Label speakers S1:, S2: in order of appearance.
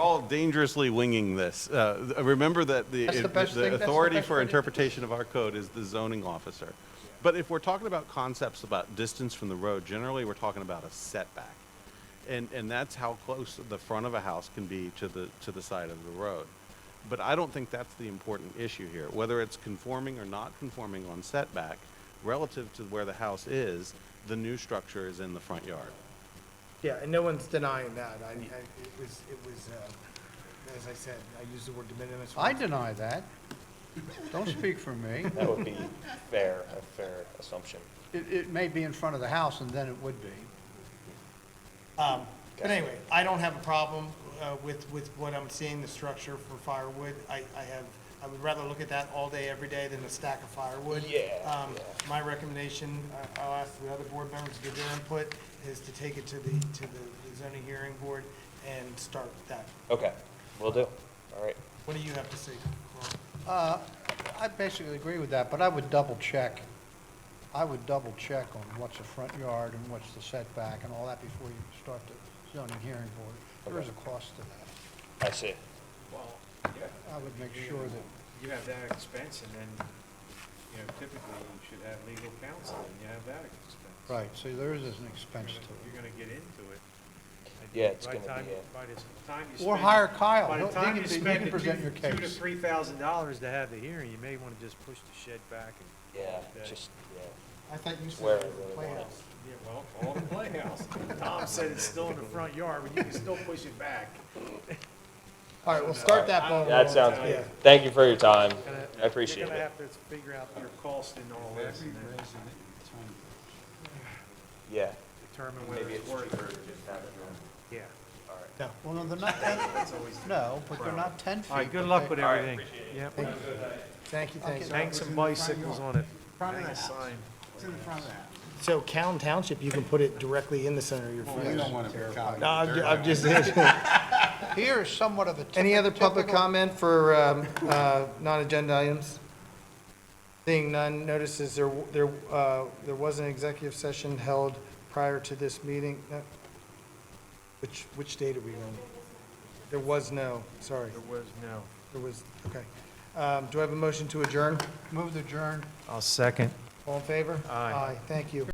S1: all dangerously winging this. Uh, remember that the,
S2: That's the best
S1: the
S2: thing- that's the
S1: authority
S2: best
S1: for
S2: way to do it.
S1: interpretation of our code is the zoning officer. But if we're talking about concepts about distance from the road, generally we're talking about a setback. And, and that's how close the front of a house can be to the, to the side of the road. But I don't think that's the important issue here. Whether it's conforming or not conforming on setback, relative to where the house is, the new structure is in the front yard.
S3: Yeah, and no one's denying that. I, I, it was, it was, uh, as I said, I used the word de minimis.
S2: I deny that. Don't speak for me.
S4: That would be fair, a fair assumption.
S2: It, it may be in front of the house, and then it would be.
S3: Um, but anyway, I don't have a problem, uh, with, with what I'm seeing, the structure for firewood. I, I have, I would rather look at that all day, every day than a stack of firewood.
S4: Yeah,
S3: Um,
S4: yeah.
S3: my recommendation, I- I'll ask the other board members to give their input, is to take it to the, to the zoning hearing board and start that.
S4: Okay, we will do. All right.
S3: What do you have to say, Carl?
S2: Uh, I basically agree with that, but I would double check. I would double check on what's the front yard and what's the setback and all that before you start the zoning hearing board. There is a cost to that.
S4: I see.
S5: Well,
S2: I would make sure that,
S5: you have that expense, and then, you know, typically, you should have legal counsel, and you have that expense.
S2: right, see, there is an
S5: You're
S2: expense
S5: gonna-
S2: to
S5: You're gonna get into it. And
S4: Yeah, it's
S5: by the
S4: gonna be,
S5: time-
S4: uh,
S5: By the time you
S2: it.
S5: spend.
S2: Or hire Kyle.
S5: By
S2: He'll- he
S5: the time
S2: can
S5: you
S2: be- he
S5: spend
S2: can
S5: the
S2: present
S5: two-
S2: your
S5: Two to
S2: case.
S5: three thousand dollars to have the hearing, you may wanna just push the shed back and.
S4: Yeah,
S5: Okay.
S4: just, yeah.
S3: I thought you said
S4: Where
S3: it
S4: I
S3: was
S4: really
S3: a
S4: want it.
S3: playhouse.
S5: Yeah, well, all the playhouse. Tom said it's still in the front yard, but you can still push it back.
S3: All right, we'll start that ball.
S4: That
S3: rolling.
S4: sounds
S3: Yeah.
S4: good. Thank you for your time.
S5: Gonna-
S4: I appreciate
S5: You're gonna
S4: it.
S5: have to figure out your cost and all this, and then
S4: Yeah.
S5: determine whether it's worth it. Yeah.
S2: Well, no, they're not, no, but they're not 10 feet.
S5: All right, good
S2: but
S5: luck
S2: they-
S5: with everything. Yep.
S3: Thank you, thank you.
S5: Hang some bicycles on it.
S3: Front of the
S5: Hang a
S3: house.
S5: sign.
S3: So Cowan Township, you can put it directly in the center of your front.
S6: don't want to be
S3: No,
S6: cocky.
S3: I'm ju- I'm just,
S2: Here is somewhat of a
S3: any other public
S2: typical-
S3: comment for um, uh, non-agenda items? Seeing none, notices there, w- there, uh, there was an executive session held prior to this meeting. No. Which, which date are we on? There was no, sorry,
S5: There was no.
S3: there was, okay. Um, Do I have a motion to adjourn?
S2: Move the adjourn.
S5: I'll second.
S3: All in favor?
S5: Aye.
S3: Thank you.